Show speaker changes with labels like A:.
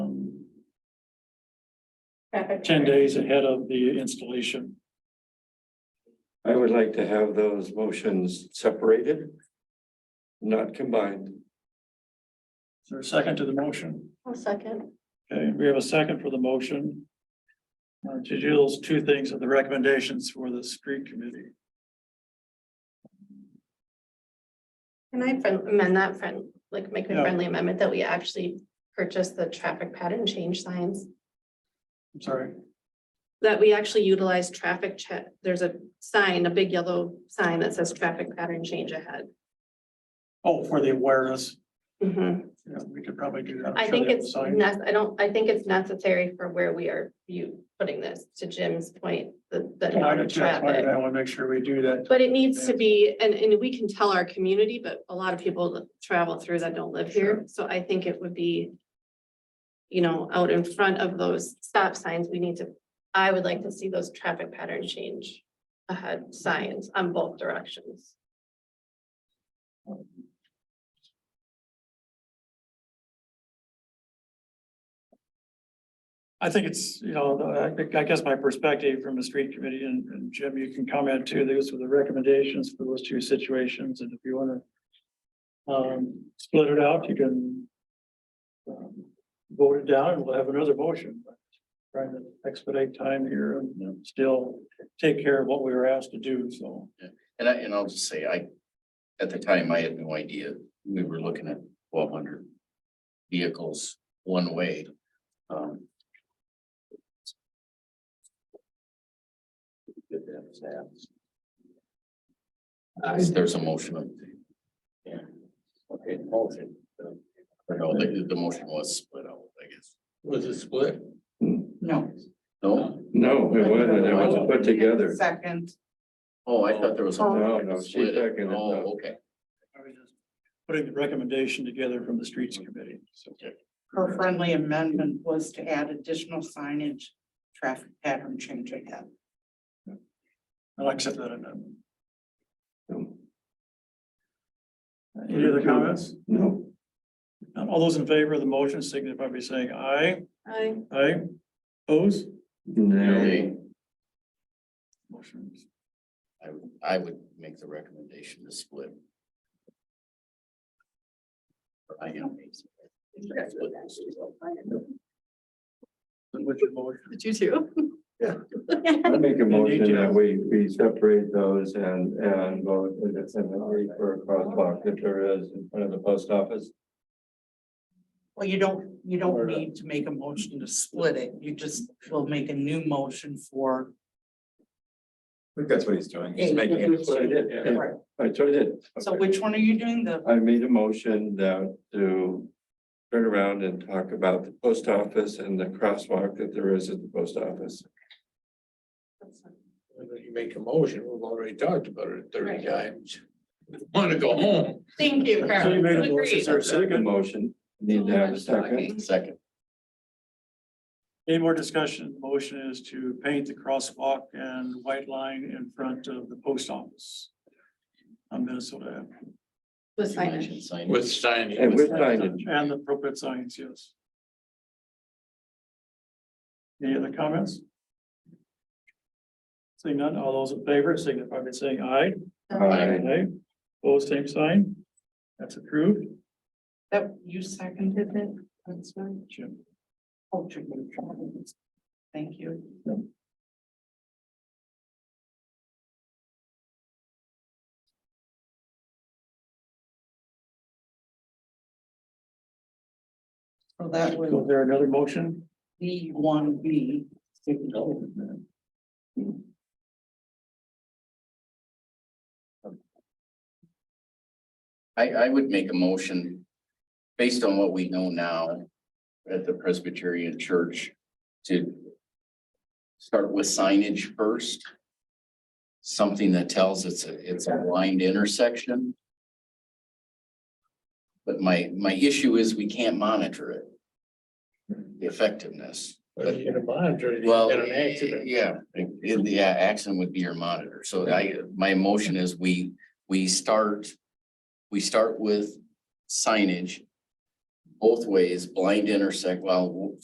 A: ten days ahead of the installation.
B: I would like to have those motions separated, not combined.
A: Is there a second to the motion?
C: One second.
A: Okay, we have a second for the motion. uh, To do those two things of the recommendations for the street committee.
C: Can I friend- amend that friend, like make a
A: Yeah.
C: friendly amendment that we actually purchase the traffic pattern change signs?
A: I'm sorry.
C: That we actually utilize traffic check, there's a sign, a big yellow sign that says traffic pattern change ahead.
A: Oh, for the awareness.
C: Mhm.
A: Yeah, we could probably do that. I'm
C: I
A: sure
C: think
A: they Mm-hmm. have a
C: it's,
A: sign.
C: nec- I don't, I think it's necessary for where we are, you putting this to Jim's point, the, the
A: Yeah, I
C: amount of
A: just- that's why
C: traffic.
A: I want to make sure we do that.
C: But it needs to be, and, and we can tell our community, but a lot of people that travel through that don't live here, so I think it would be. You know, out in front of those stop signs, we need to, I would like to see those traffic pattern change. Ahead signs on both directions.
A: I think it's, you know, I think, I guess my perspective from the street committee and, and Jim, you can comment too, those were the recommendations for those two situations, and if you wanna. Um, split it out, you can. um, Vote it down and we'll have another motion. but Trying to expedite time here and you know, still take care of what we were asked to do, so.
D: And I, and I'll just say, I, at the time, I had no idea, we were looking at twelve hundred vehicles one way. Um, good to have that. Uh, There's a motion. up there. Yeah. Okay, motion. Or no, the, the motion was split out, I guess. Was it split? No. No?
B: No, it wasn't. It was put together.
E: Second.
D: Oh, I thought there was. a-
B: No, no, she's
D: Split it.
B: seconded that.
D: Oh, okay.
A: I was just Putting the recommendation together from the streets committee, so.
E: Her friendly amendment was to add additional signage, traffic pattern change ahead.
A: I'll accept that amendment.
B: No.
A: Any other comments?
B: No.
A: Um, All those in favor of the motion signify by saying aye.
C: I,
A: Aye. Oppose?
B: No.
D: Nay.
A: Motion.
D: I, would- I would make the recommendation to split. I am.
A: Then what's your motion?
C: did you too?
B: I make a motion that we, we separate those and, and vote in the cemetery for a crosswalk that there is in front of the post office.
E: Well, you don't, you don't
B: Or not.
E: need to make a motion to split it. You just will make a new motion for.
F: think that's what he's doing. He's making it
B: That's what I did.
E: Right.
B: That's what I did.
E: So which one are you doing? The,
B: I made a motion that to turn around and talk about the post office and the crosswalk that there is at the post office.
F: You make a motion, we've already talked about it
C: Right.
F: thirty times. Want to go home?
C: Thank you,
A: So you made a motion, is there a
B: Second
A: second?
B: motion, need to have a second.
D: Second,
A: Any more discussion? The Motion is to paint the crosswalk and white line in front of the post office. On Minnesota Ave.
C: With
D: you
C: signage.
D: mentioned sign.
F: With signing.
B: And with signage,
A: And the appropriate signs, yes. Any other comments? Seeing none, all those in favor signify by saying aye.
B: Aye.
A: Aye. Opposed, same sign. That's approved.
E: that you seconded it? That's right.
A: Jim.
E: Oh, Jim, Thank you. So that
A: So
E: was
A: is there another motion?
E: B one B.
D: I, I would make a motion based on what we know now at the Presbyterian Church to start with signage first. Something that tells it's a, it's a blind intersection. But my, my issue is we can't monitor it. The effectiveness.
F: But you can monitor it, you
D: Well,
F: get an accident.
D: yeah, it- yeah, accident would be your monitor. So I, my motion is we, we start, we start with signage both ways, blind intersect, well,